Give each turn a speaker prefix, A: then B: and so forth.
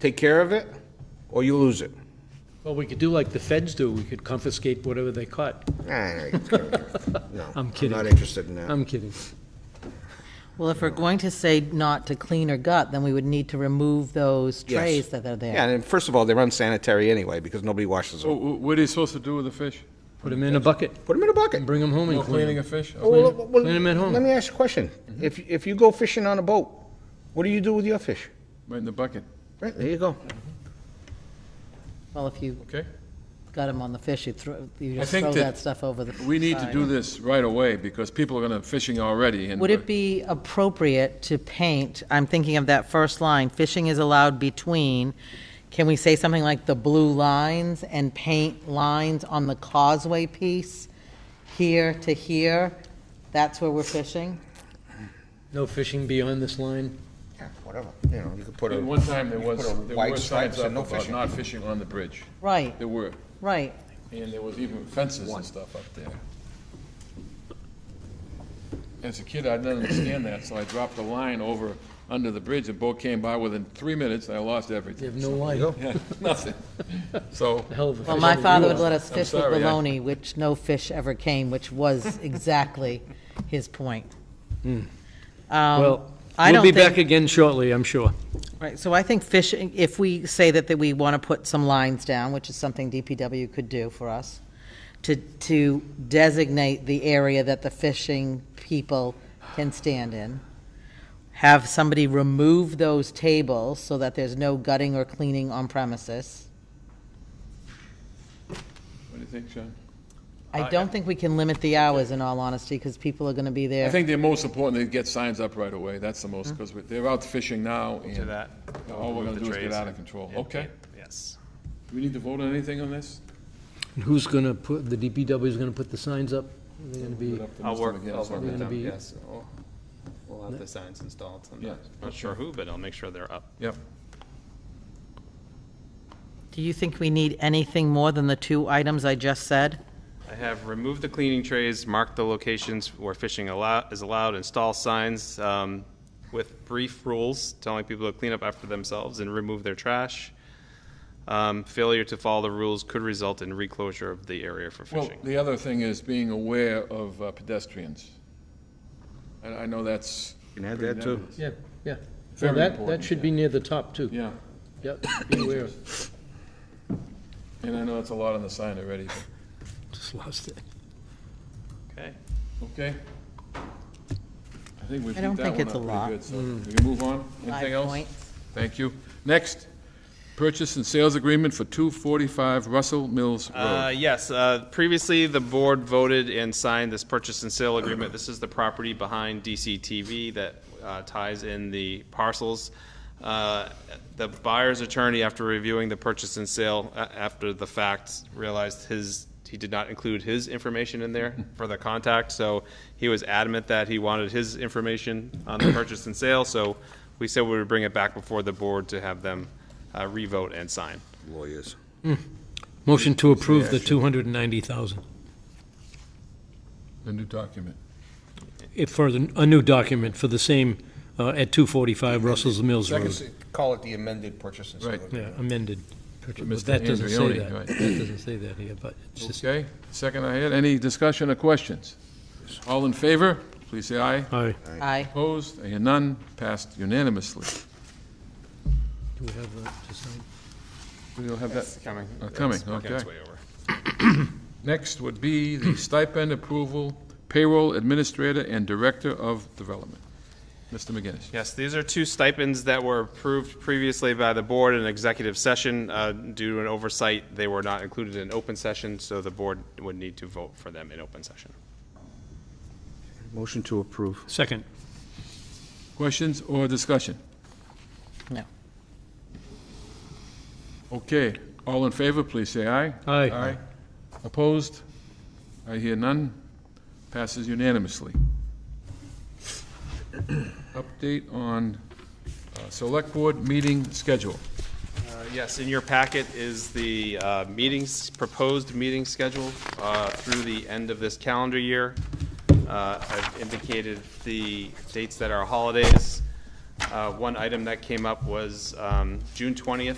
A: take care of it, or you lose it.
B: Well, we could do like the feds do, we could confiscate whatever they caught.
A: Nah, no, you can't. No,
B: I'm kidding.
A: not interested in that.
B: I'm kidding.
C: Well, if we're going to say not to clean or gut, then we would need to remove those
A: Yes.
C: trays that are
A: Yeah,
C: there.
A: and first of all, they're unsanitary anyway, because nobody washes
D: So
A: them.
D: wh- what are you supposed to do with the fish?
B: Put them in a bucket
A: Put them in a bucket.
B: and bring them home and
D: No
B: clean
D: cleaning
B: 'em.
D: of fish?
A: Well,
B: Clean-
A: well, well,
B: clean 'em at home.
A: Let me ask you a question. If, if you go fishing on a boat, what do you do with your fish?
D: Right in the bucket,
A: Right, there you go.
C: Well, if you
D: okay?
C: gut them on the fish, you throw, you
D: I
C: just
D: think
C: throw
D: that
C: that stuff over the.
D: We need to
C: side.
D: do this right away because people are gonna fishing already and.
C: Would it be appropriate to paint, I'm thinking of that first line, fishing is allowed between, can we say something like the blue lines and paint lines on the causeway piece, here to here? That's where we're fishing?
B: No fishing beyond this line.
A: Yeah, whatever, you know, you could put a.
D: At one time, there
A: you could
D: was,
A: put a
D: there
A: white
D: were
A: stripe
D: signs
A: that
D: up
A: no
D: about
A: fishing.
D: not fishing on the bridge.
C: Right,
D: There were,
C: right.
D: and there was even fences and stuff up there. As a kid, I didn't understand that, so I dropped a line over, under the bridge, the boat came by within three minutes, and I lost
B: You
D: everything.
B: have no life.
D: Yeah, nothing. So,
B: Hell of a
C: Well,
B: fish.
C: my father would let us
D: I'm
C: fish with
D: sorry, I-
C: baloney, which no fish ever came, which was exactly his point. Um,
B: Hmm. Well,
C: I
B: we'll be
C: don't
B: back
C: think-
B: again shortly, I'm sure.
C: Right, so I think fishing, if we say that, that we want to put some lines down, which is something DPW could do for us, to, to designate the area that the fishing people can stand in. Have somebody remove those tables so that there's no gutting or cleaning on premises.
D: what do you think, Sean?
C: I don't think we can limit the hours, in all honesty, because people are going to be
D: Uh, I
C: there.
D: think the most important, they get signs up right away, that's the most, because they're out fishing now,
E: to
D: and
E: that.
D: all we're gonna
E: Remove the
D: do is get
E: trays
D: out of
E: and-
D: control.
E: and
D: Okay,
E: paint. Yes.
D: do we need to vote on anything on this?
B: And Who's going to put, the DPW is going to put the signs up? They're going to be,
D: Up to
E: I'll
D: Mr.
E: work,
D: McGinnis
E: I'll
D: on
E: work
D: that.
E: with
B: gonna
E: them,
B: be-
E: yes. We'll- We'll have the signs installed sometime.
D: Yeah.
E: Not sure who, but I'll make sure they're up.
D: Yep.
C: Do you think we need anything more than the two items I just said?
E: I have removed the cleaning trays, marked the locations where fishing allow, is allowed, install signs, um, with brief rules telling people to clean up after themselves and remove their trash. Um, failure to follow the rules could result in reclosure of the area for
D: Well,
E: fishing.
D: the other thing is being aware of uh, pedestrians. And I know that's.
A: You can add that too.
B: yeah, yeah. Well,
D: Very
B: that, that
D: important,
B: should be near the top, too.
D: Yeah,
B: Yep, be aware.
D: and I know that's a lot on the sign already, but-
B: Just lost it.
E: Okay.
D: okay? I think we've
C: I
D: beat
C: don't
D: that
C: think
D: one
C: it's a lot.
D: up pretty good, so we can move on. Anything
C: Five
D: else?
C: points.
D: Thank you. Next, purchase and sales agreement for 245 Russell Mills
E: Uh,
D: Road.
E: Yes, uh, previously, the board voted and signed this purchase and sale agreement. This is the property behind DCTV that uh, ties in the parcels. Uh, The buyer's attorney, after reviewing the purchase and sale a- after the fact, realized his, he did not include his information in there for the contact, so he was adamant that he wanted his information on the purchase and sale, so we said we would bring it back before the board to have them uh, revote and sign.
A: Lawyers.
B: Motion to approve the 290,000,
D: The new document.
B: If for the- a new document for the same, uh, at 245 Russell's Mills
A: So I
B: Road.
A: could call it the amended purchase and sale
D: Right.
B: Yeah,
A: agreement.
B: amended.
D: But
B: But
D: Mr.
B: that doesn't say
D: Andreoni,
B: that.
D: right.
B: That doesn't say that here, but it's just,
D: Okay, second I had, any discussion or questions? All in favor, please say aye.
B: all right.
C: Aye.
D: Opposed, I hear none, passed unanimously.
B: Do we have that to sign?
D: We don't have that.
E: It's coming.
D: Oh, coming,
E: It's working its
D: okay.
E: way over.
D: Next would be the stipend approval, payroll administrator and director of development. Mr. McGinnis.
E: Yes, these are two stipends that were approved previously by the board in executive session. Uh, Due to an oversight, they were not included in open session, so the board would need to vote for them in open session.
A: Motion to approve.
B: Second.
D: Questions or discussion?
C: No.
D: Okay, all in favor, please say aye.
B: Aye.
D: Aye. Opposed? I hear none. Passes unanimously. Update on uh, select board meeting schedule.
E: Uh, Yes, in your packet is the uh, meetings, proposed meeting schedule uh, through the end of this calendar year. Uh, I've indicated the dates that are holidays. Uh, One item that came up was um, June 20th